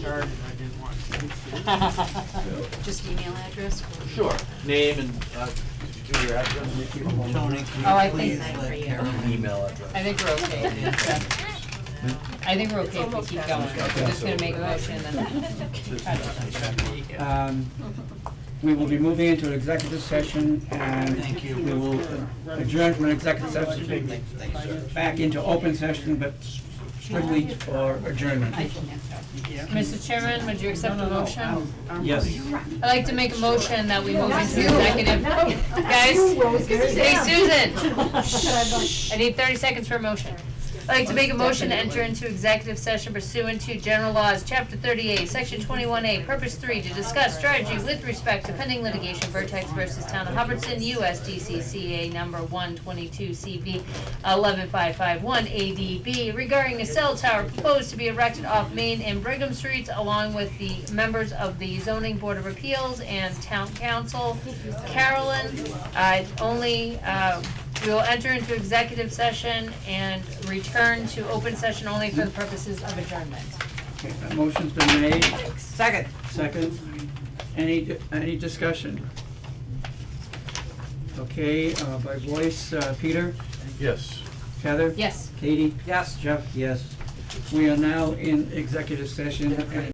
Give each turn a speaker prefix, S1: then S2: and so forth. S1: started, I didn't want to.
S2: Oh,
S3: Just email address? or-
S4: Sure, name and, uh, could you do your address?
S5: Tony,
S2: Oh, I
S5: can you
S2: think
S5: please
S2: nine for
S5: let
S2: you.
S5: Carolyn email address?
S2: I think we're okay. I think we're okay if we keep going. We're just gonna make a motion and then.
S6: Um, We will be moving into an executive session and
S5: Thank you.
S6: we will adjourn from an executive session
S5: Thanks, sir.
S6: back into open session, but strictly for adjournment.
S2: Mr. Chairman, would you accept the motion?
S6: Yes.
S2: I'd like to make a motion that we move into executive. Guys, hey Susan, I need thirty seconds for a motion. I'd like to make a motion to enter into executive session pursuant to general laws, chapter thirty-eight, section twenty-one A, purpose three, to discuss strategy with respect to pending litigation, Vertex versus Town of Hubbardson, US DCCA number one twenty-two CV eleven five five one ADB regarding a cell tower proposed to be erected off Main and Brigham Streets along with the members of the zoning board of appeals and town council. Carolyn, uh, only, uh, we will enter into executive session and return to open session only for the purposes of adjournment.
S6: Okay, that Motion's been made,
S5: Second.
S6: second. Any, any discussion? Okay, uh, by voice, uh, Peter,
S4: Yes.
S6: Heather?
S2: Yes.
S6: Katie?
S5: Yes.
S6: Jeff, yes. We are now in executive session and